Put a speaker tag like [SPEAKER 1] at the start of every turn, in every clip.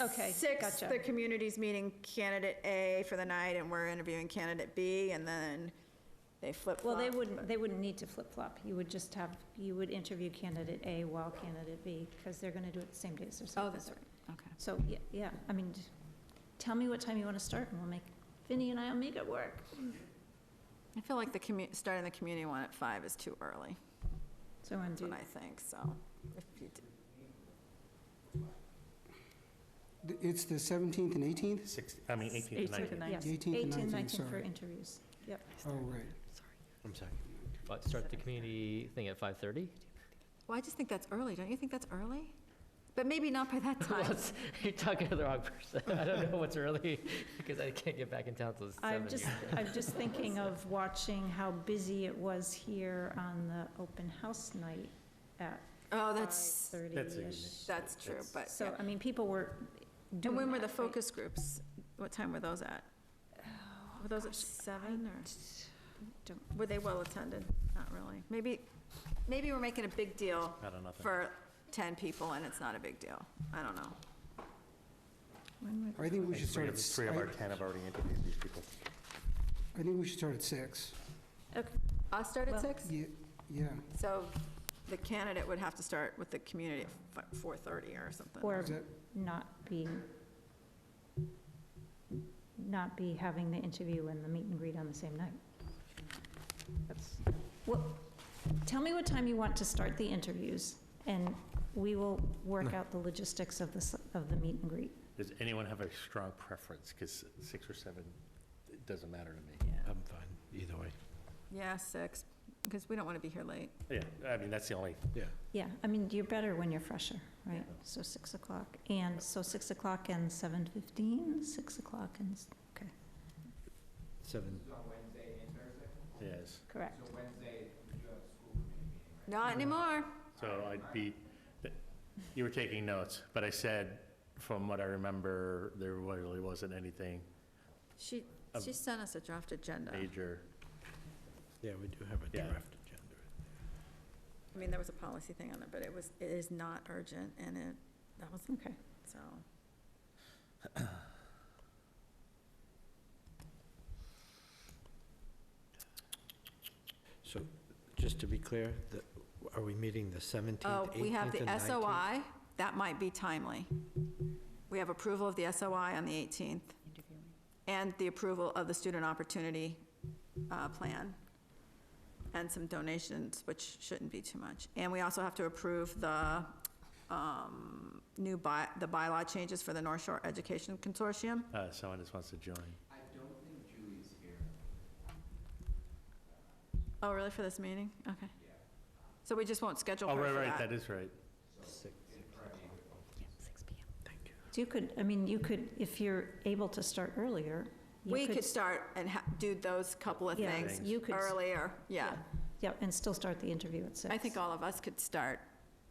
[SPEAKER 1] Okay,
[SPEAKER 2] Six,
[SPEAKER 1] gotcha.
[SPEAKER 2] the community's meeting candidate A for the night, and we're interviewing candidate B, and then they flip
[SPEAKER 1] Well,
[SPEAKER 2] flop.
[SPEAKER 1] they wouldn't, they wouldn't need to flip-flop. You would just have, you would interview candidate A while candidate B, because they're going to do it the same day as their
[SPEAKER 3] Oh,
[SPEAKER 1] surface.
[SPEAKER 3] that's right, okay.
[SPEAKER 1] So, yeah, yeah, I mean, just tell me what time you want to start, and we'll make, Vinnie and I'll make it work.
[SPEAKER 2] I feel like the commu, starting the community one at five is too early,
[SPEAKER 1] So I'm
[SPEAKER 2] that's what I
[SPEAKER 1] doing,
[SPEAKER 2] think, so. if you do-
[SPEAKER 4] It's the 17th and 18th?
[SPEAKER 5] Six, I mean, 18 to 19.
[SPEAKER 1] yes,
[SPEAKER 4] 18th and
[SPEAKER 1] 18,
[SPEAKER 4] 19th,
[SPEAKER 1] 19 for
[SPEAKER 4] sorry.
[SPEAKER 1] interviews. Yep,
[SPEAKER 4] Oh, right.
[SPEAKER 5] I'm sorry.
[SPEAKER 6] But start the community thing at 5:30?
[SPEAKER 2] Well, I just think that's early, don't you think that's early? But maybe not by that
[SPEAKER 6] Well,
[SPEAKER 2] time.
[SPEAKER 6] it's- You're talking to the wrong person. I don't know what's early, because I can't get back in town till 7.
[SPEAKER 1] I'm just, I'm just thinking of watching how busy it was here on the open house night at
[SPEAKER 2] Oh, that's,
[SPEAKER 1] 5:30-ish.
[SPEAKER 2] that's true, but.
[SPEAKER 1] So, I mean, people were
[SPEAKER 2] And
[SPEAKER 1] doing
[SPEAKER 2] when were
[SPEAKER 1] that,
[SPEAKER 2] the
[SPEAKER 1] right?
[SPEAKER 2] focus groups? What time were those at? Were those at Oh, seven or?
[SPEAKER 1] don't-
[SPEAKER 2] Were they well attended? Not really. Maybe, maybe we're making a big deal
[SPEAKER 5] Not enough.
[SPEAKER 2] for 10 people and it's not a big deal. I don't know.
[SPEAKER 1] When were-
[SPEAKER 4] I think we should
[SPEAKER 5] Three
[SPEAKER 4] start
[SPEAKER 5] of
[SPEAKER 4] at,
[SPEAKER 5] three of our
[SPEAKER 4] I
[SPEAKER 5] 10 have already interviewed these people.
[SPEAKER 4] I think we should start at 6.
[SPEAKER 1] Okay,
[SPEAKER 2] I'll start at
[SPEAKER 1] Well-
[SPEAKER 2] six?
[SPEAKER 4] Ye- Yeah.
[SPEAKER 2] So the candidate would have to start with the community at fi- 4:30 or something.
[SPEAKER 1] Or
[SPEAKER 4] Is that-
[SPEAKER 1] not be, not be having the interview and the meet and greet on the same night. That's, well, tell me what time you want to start the interviews, and we will work out the logistics of this, of the meet and greet.
[SPEAKER 5] Does anyone have a strong preference? Because six or seven, it doesn't matter to me.
[SPEAKER 7] I'm fine, either way.
[SPEAKER 2] Yeah, six, because we don't want to be here late.
[SPEAKER 5] Yeah, I mean, that's the only,
[SPEAKER 7] Yeah.
[SPEAKER 1] Yeah, I mean, you're better when you're fresher, right? So 6 o'clock, and, so 6 o'clock and 7:15, 6 o'clock and, s- okay,
[SPEAKER 7] Seven,
[SPEAKER 8] on Wednesday and Thursday?
[SPEAKER 5] yes.
[SPEAKER 1] correct.
[SPEAKER 8] So Wednesday, you do have a school committee meeting, right?
[SPEAKER 2] Not anymore.
[SPEAKER 5] So I'd be, you were taking notes, but I said, from what I remember, there really wasn't anything
[SPEAKER 2] She, she sent us a draft agenda.
[SPEAKER 5] major.
[SPEAKER 7] yeah, we do have a
[SPEAKER 5] Yeah.
[SPEAKER 7] draft agenda.
[SPEAKER 2] I mean, there was a policy thing on it, but it was, it is not urgent and it, that was,
[SPEAKER 1] Okay.
[SPEAKER 2] so.
[SPEAKER 7] So, just to be clear, the- are we meeting the 17th,
[SPEAKER 2] Oh,
[SPEAKER 7] 18th,
[SPEAKER 2] we have the
[SPEAKER 7] and 19th?
[SPEAKER 2] SOI, that might be timely. We have approval of the SOI on the 18th, and the approval of the Student Opportunity uh, Plan, and some donations, which shouldn't be too much. And we also have to approve the um, new by, the bylaw changes for the North Shore Education Consortium.
[SPEAKER 5] Uh, Someone just wants to join.
[SPEAKER 8] I don't think Julie's here.
[SPEAKER 2] Oh, really, for this meeting? Okay.
[SPEAKER 8] Yeah.
[SPEAKER 2] So we just won't schedule
[SPEAKER 5] Oh,
[SPEAKER 2] her
[SPEAKER 5] right,
[SPEAKER 2] for
[SPEAKER 5] right, that is right.
[SPEAKER 1] So you could, I mean, you could, if you're able to start earlier,
[SPEAKER 2] We
[SPEAKER 1] you
[SPEAKER 2] could
[SPEAKER 1] could,
[SPEAKER 2] start and ha- do those couple of
[SPEAKER 1] Yeah,
[SPEAKER 2] things
[SPEAKER 1] you could-
[SPEAKER 2] earlier, yeah.
[SPEAKER 1] yeah, and still start the interview at six.
[SPEAKER 2] I think all of us could start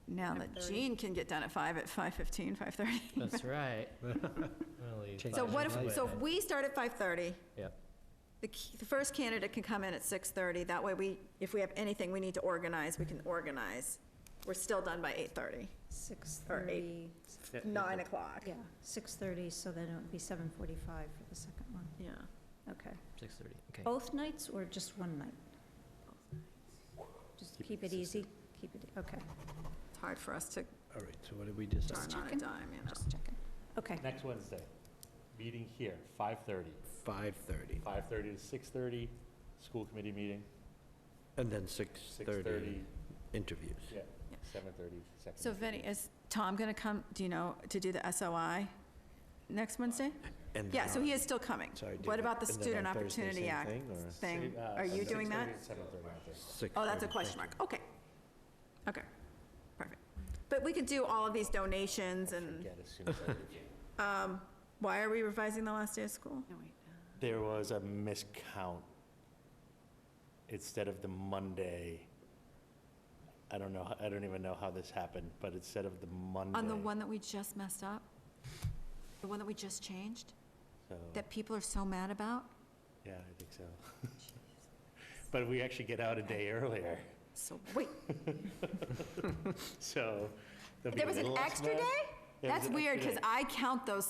[SPEAKER 2] now that Jean can get done at five, at 5:15, 5:30.
[SPEAKER 6] That's right. Really
[SPEAKER 2] So what
[SPEAKER 6] five minutes
[SPEAKER 2] if,
[SPEAKER 6] late.
[SPEAKER 2] so if we start at 5:30,
[SPEAKER 6] Yep.
[SPEAKER 2] the key- the first candidate can come in at 6:30, that way we, if we have anything we need to organize, we can organize. We're still done by 8:30,
[SPEAKER 1] Six
[SPEAKER 2] or
[SPEAKER 1] thirty,
[SPEAKER 2] eight. 9 o'clock.
[SPEAKER 1] yeah, six thirty, so then it would be seven forty-five for the second one.
[SPEAKER 2] Yeah.
[SPEAKER 1] Okay.
[SPEAKER 6] 6:30, okay.
[SPEAKER 1] Both nights or just one night? Just keep it easy, keep it, e-, okay.
[SPEAKER 2] It's hard for us to
[SPEAKER 7] All right, so what did we decide?
[SPEAKER 2] darn on a
[SPEAKER 1] checking.
[SPEAKER 2] dime, you know.
[SPEAKER 1] Just checking. Okay,
[SPEAKER 5] Next Wednesday, meeting here, 5:30.
[SPEAKER 7] 5:30,
[SPEAKER 5] 5:30 to 6:30, school committee meeting.
[SPEAKER 7] and then 6:30 interviews.
[SPEAKER 5] Yeah, 7:30, second.
[SPEAKER 2] So uh, Vinnie, is Tom going to come, do you know, to do the SOI next Wednesday?
[SPEAKER 7] And
[SPEAKER 2] Yeah,
[SPEAKER 7] then
[SPEAKER 2] so he
[SPEAKER 7] on-
[SPEAKER 2] is still coming.
[SPEAKER 7] Sorry, do
[SPEAKER 2] What
[SPEAKER 7] that-
[SPEAKER 2] about the
[SPEAKER 7] and then
[SPEAKER 2] Student
[SPEAKER 7] on Thursday,
[SPEAKER 2] Opportunity
[SPEAKER 7] same
[SPEAKER 2] Act
[SPEAKER 7] thing, or-
[SPEAKER 2] thing?
[SPEAKER 5] uh,
[SPEAKER 2] Are you doing that?
[SPEAKER 5] 7:30.
[SPEAKER 7] 6:30.
[SPEAKER 2] Oh, that's a
[SPEAKER 7] Thank you.
[SPEAKER 2] question mark. Okay. Okay. Perfect. But we could do all of these donations and,
[SPEAKER 5] Get as soon as I leave.
[SPEAKER 2] why are we revising the last day of school?
[SPEAKER 5] There was a miscount. Instead of the Monday, I don't know, I don't even know how this happened, but instead of the Monday.
[SPEAKER 2] On the one that we just messed up? The one that we just changed?
[SPEAKER 5] so-
[SPEAKER 2] That people are so mad about?
[SPEAKER 5] Yeah, I think so. But we actually get out a day earlier,
[SPEAKER 2] So, wait,
[SPEAKER 5] so. there'll be
[SPEAKER 2] there
[SPEAKER 5] a
[SPEAKER 2] was an
[SPEAKER 5] little less
[SPEAKER 2] extra
[SPEAKER 5] mud.
[SPEAKER 2] day?
[SPEAKER 5] It was-
[SPEAKER 2] That's weird, because
[SPEAKER 5] today.
[SPEAKER 2] I count those